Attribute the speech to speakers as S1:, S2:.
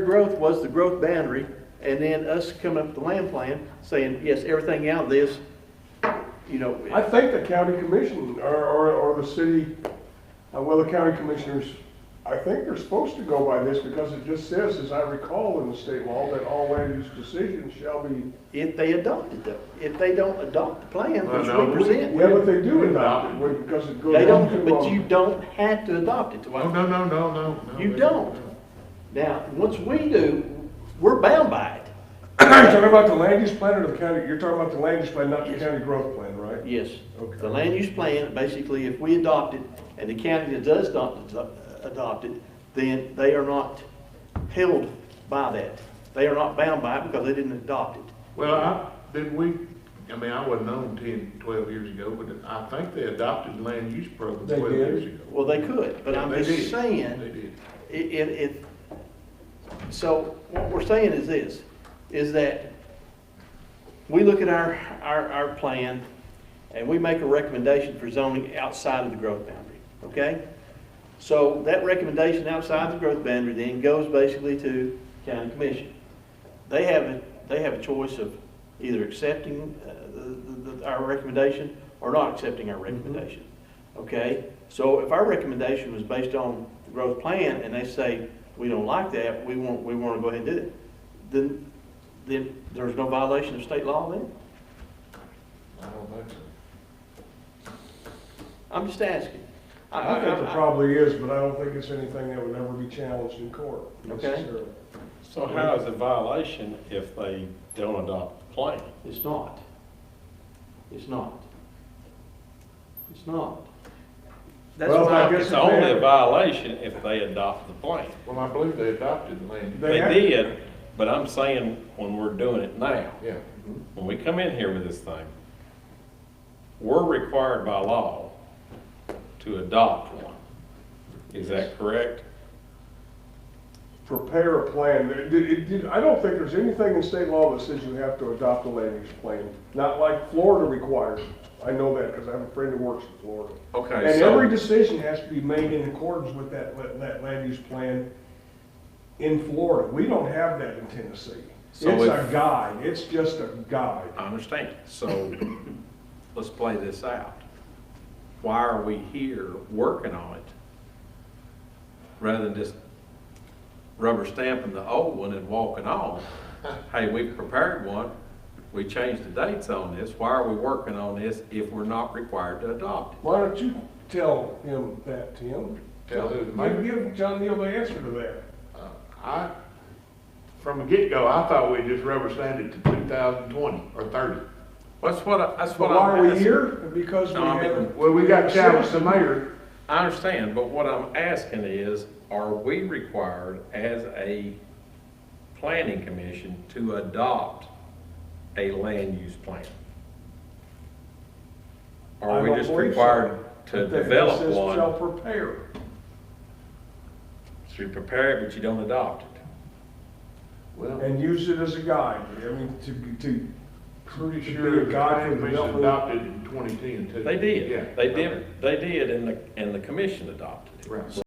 S1: growth was the growth boundary, and then us coming up with the land plan, saying, yes, everything out of this, you know.
S2: I think the county commission or, or, or the city, uh, well, the county commissioners, I think they're supposed to go by this because it just says, as I recall in the state law, that all land use decisions shall be.
S1: If they adopt it though, if they don't adopt the plan,
S3: Well,
S1: which
S3: no,
S1: we
S3: we-
S1: present,
S2: Yeah, but they do adopt it when- because it goes
S1: they
S2: on too
S1: don't,
S2: long.
S1: but you don't have to adopt it.
S3: No, no, no, no, no. no,
S1: You
S3: they-
S1: don't. Now, once we do, we're bound by it.
S2: You're talking about the land use plan or the county, you're talking about the land use plan, not the
S1: Yes.
S2: county growth plan, right?
S1: Yes.
S2: Okay.
S1: The land use plan, basically, if we adopt it, and the county that does adopt, adopt it, then they are not held by that. They are not bound by it because they didn't adopt it.
S3: Well, I, didn't we, I mean, I wasn't on ten, twelve years ago, but I think they adopted land use program
S2: They
S3: twelve
S2: did.
S3: years ago.
S1: Well, they could, but I'm
S3: They
S1: just
S3: did.
S1: saying.
S3: They did.
S1: It, it, it, so what we're saying is this, is that we look at our, our, our plan and we make a recommendation for zoning outside of the growth boundary, okay? So that recommendation outside the growth boundary then goes basically to county commission. They have, a they have a choice of either accepting uh, the- the- the- our recommendation or not accepting our recommendation. Okay, so if our recommendation was based on the growth plan and they say, we don't like that, we want, we want to go ahead and do it, then, then there's no violation of state law then?
S3: I don't think so.
S1: I'm just asking.
S2: I think it probably is, but I don't think it's anything that would ever be challenged in court
S1: Okay.
S2: necessarily.
S4: So how is it violation if they don't adopt the plan?
S1: It's not. It's not. It's not. That's
S2: Well, I
S1: why,
S2: guess
S4: It's
S2: if
S4: only
S2: they-
S4: a violation if they adopt the plan.
S3: Well, I believe they adopted land, use.
S2: They
S4: They
S2: have-
S4: did, but I'm saying when we're doing it now,
S3: yeah.
S4: when we come in here with this thing, we're required by law to adopt one. Is that correct?
S2: prepare a plan. It- it- it- I don't think there's anything in state law that says you have to adopt a land use plan, not like Florida requires. I know that because I have a friend who works in Florida.
S3: Okay,
S2: And every
S3: so,
S2: decision has to be made in accordance with that, la- that land use plan in Florida. We don't have that in Tennessee. It's
S3: So
S2: a
S3: if-
S2: guide, it's just a guide.
S3: I understand, so, let's play this out. Why are we here working on it? Rather than just rubber stamping the old one and walking on? Hey, we prepared one, we changed the dates on this, why are we working on this if we're not required to adopt it?
S2: Why don't you tell him that, Tim?
S3: Tell who, the mayor?
S2: Maybe give John Neal the answer to that.
S3: I, from the get-go, I thought we just rubber stamped it to two thousand twenty or thirty. That's what, I- that's
S2: But
S3: what
S2: why
S3: I'm
S2: are we
S3: asking.
S2: here? Because we
S3: No, I mean,
S2: haven't.
S3: well, we got challenged, the
S2: mayor.
S4: I understand, but what I'm asking is, are we required as a planning commission to adopt a land use plan?
S2: I
S4: Are we
S2: don't
S4: just
S2: believe so.
S4: required to
S2: But that
S4: develop
S2: says Shall
S4: one,
S2: prepare.
S4: so you prepare it, but you don't adopt it?
S3: Well,
S2: And use it as a guide, I mean, to, to,
S3: pretty
S2: to
S3: sure
S2: be
S3: the
S2: a guide for
S3: plan was
S2: development.
S3: adopted in twenty ten too.
S4: They
S3: Yeah.
S4: did, they did, they did, and the, and the commission adopted it.
S3: Right.